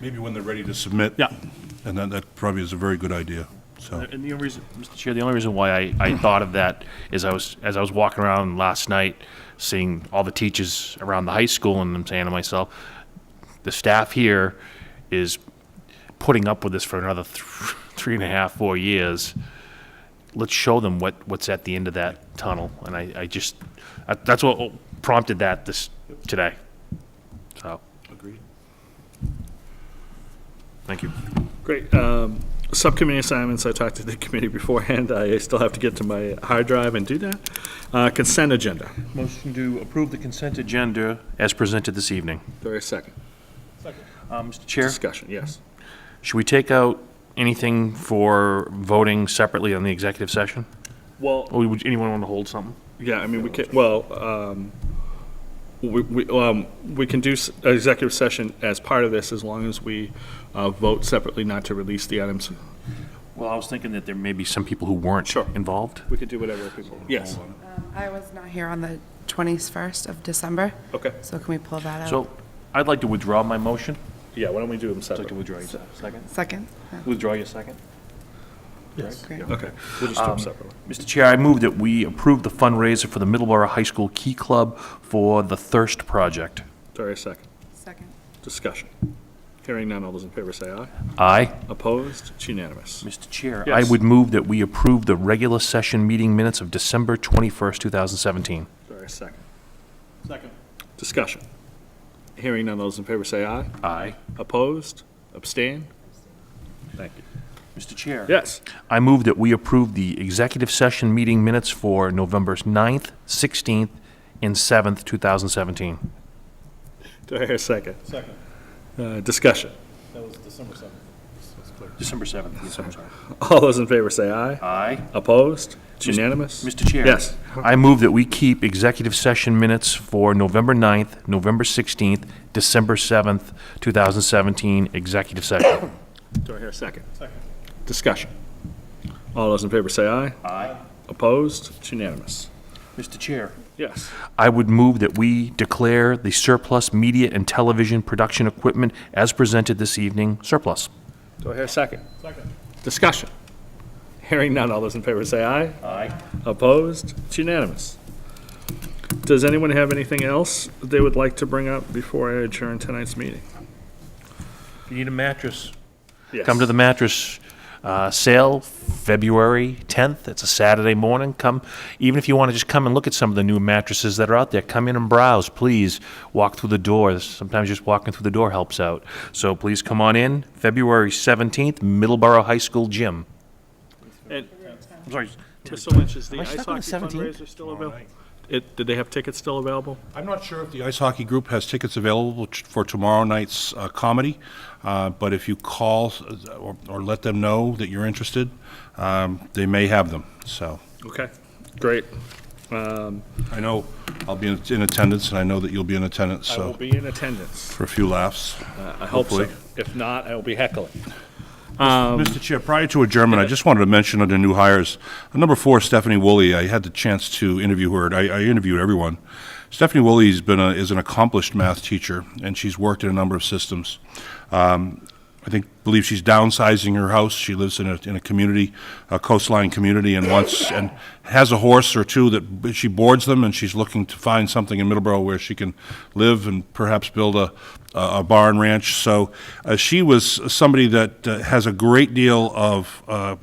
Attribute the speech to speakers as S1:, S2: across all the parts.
S1: Maybe when they're ready to submit.
S2: Yeah.
S1: And then that probably is a very good idea, so.
S2: And the only reason, Mr. Chair, the only reason why I, I thought of that is I was, as I was walking around last night, seeing all the teachers around the high school, and I'm saying to myself, the staff here is putting up with this for another th- three and a half, four years. Let's show them what, what's at the end of that tunnel. And I, I just, I- that's what prompted that this, today. So,
S1: Agreed.
S2: thank you.
S3: Great. Um, Subcommittee assignments, I talked to the committee beforehand. I still have to get to my hard drive and do that. Uh, Consent agenda.
S2: Motion to approve the consent agenda as presented this evening.
S3: There is second.
S2: Mr. Uh, Chair?
S3: Discussion, yes.
S2: Should we take out anything for voting separately on the executive session?
S3: Well,
S2: Or would anyone want to hold something?
S3: yeah, I mean, we can, well, um, we, we, um, we can do s- executive session as part of this as long as we uh, vote separately not to release the items.
S2: Well, I was thinking that there may be some people who weren't
S3: Sure.
S2: involved.
S3: We could do whatever people. Yes,
S4: Um, I was not here on the 21st of December,
S3: okay.
S4: so can we pull that out?
S2: So I'd like to withdraw my motion.
S3: Yeah, why don't we do them separately?
S2: withdraw your second.
S4: Second?
S2: Withdraw your second.
S4: Great.
S3: Okay, we'll just do them separately.
S2: Mr. Chair, I move that we approve the fundraiser for the Middleborough High School Key Club for the Thirst Project.
S3: There is second.
S4: Second.
S3: Discussion. Hearing none, all those in favor say aye.
S2: Aye.
S3: Opposed? It's unanimous.
S2: Mr. Chair, I
S3: Yes.
S2: would move that we approve the regular session meeting minutes of December 21st, 2017.
S3: Sorry, second? Second. Discussion. Hearing none, those in favor say aye.
S2: Aye.
S3: Opposed? Abstain? Thank you.
S2: Mr. Chair.
S3: Yes,
S2: I move that we approve the executive session meeting minutes for November 9th, 16th, and 7th, 2017.
S3: do I hear a second? Second. Discussion.
S2: December 7th, yes, I'm sorry.
S3: All those in favor say aye.
S2: Aye.
S3: Opposed? It's unanimous?
S2: Mr. Chair.
S3: Yes,
S2: I move that we keep executive session minutes for November 9th, November 16th, December 7th, 2017, executive session.
S3: do I hear a second? Second. Discussion. All those in favor say aye. Aye. Opposed? It's unanimous.
S2: Mr. Chair.
S3: Yes,
S2: I would move that we declare the surplus media and television production equipment as presented this evening surplus.
S3: do I hear a second? Second. Discussion. Hearing none, all those in favor say aye.
S2: Aye.
S3: Opposed? It's unanimous. Does anyone have anything else they would like to bring up before I adjourn tonight's meeting?
S2: You need a mattress.
S3: Yes.
S2: Come to the mattress uh, sale February 10th. It's a Saturday morning. Come, even if you want to just come and look at some of the new mattresses that are out there, come in and browse, please. Walk through the doors. Sometimes just walking through the door helps out. So please come on in. February 17th, Middleborough High School Gym.
S3: And
S2: I'm sorry.
S3: Mr. Lynch, is the
S2: Am I
S3: ice
S2: stuck on
S3: hockey
S2: the 17th?
S3: fundraiser still available? It, did they have tickets still available?
S1: I'm not sure if the ice hockey group has tickets available ch- for tomorrow night's uh, comedy, uh, but if you call uh, or or let them know that you're interested, um, they may have them, so.
S3: Okay, great.
S1: I know I'll be in in attendance, and I know that you'll be in attendance,
S3: I will
S1: so,
S3: be in attendance.
S1: for a few laughs.
S3: I hope so.
S1: Hopefully.
S3: If not, I will be heckling.
S1: Mr. Chair, prior to adjournment, I just wanted to mention under new hires, number four, Stephanie Woolley, I had the chance to interview her, and I, I interviewed everyone. Stephanie Woolley's been a, is an accomplished math teacher, and she's worked in a number of systems. Um, I think, believe she's downsizing her house, she lives in a, in a community, a coastline community, and wants, and has a horse or two that she boards them, and she's looking to find something in Middleborough where she can live and perhaps build a, a a barn ranch. So uh, she was somebody that uh, has a great deal of uh,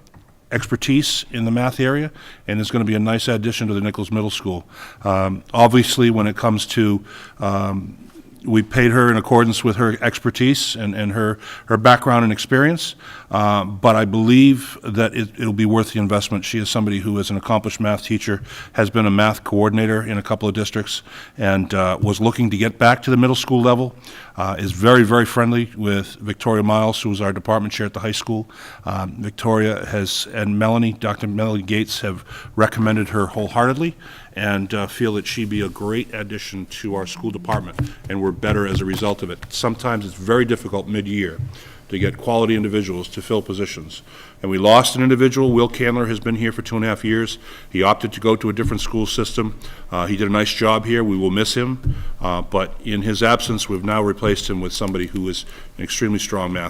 S1: expertise in the math area and is going to be a nice addition to the Nichols Middle School. Um, Obviously, when it comes to um, we paid her in accordance with her expertise and, and her, her background and experience, um, but I believe that it, it'll be worth the investment. She is somebody who is an accomplished math teacher, has been a math coordinator in a couple of districts, and uh, was looking to get back to the middle school level, uh, is very, very friendly with Victoria Miles, who is our department chair at the high school. Um, Victoria has, and Melanie, Dr. Melanie Gates, have recommended her wholeheartedly, and uh, feel that she'd be a great addition to our school department, and we're better as a result of it. Sometimes it's very difficult mid-year to get quality individuals to fill positions. And we lost an individual. Will Candler has been here for two and a half years. He opted to go to a different school system. Uh, He did a nice job here. We will miss him. Uh, But in his absence, we've now replaced him with somebody who is an extremely strong math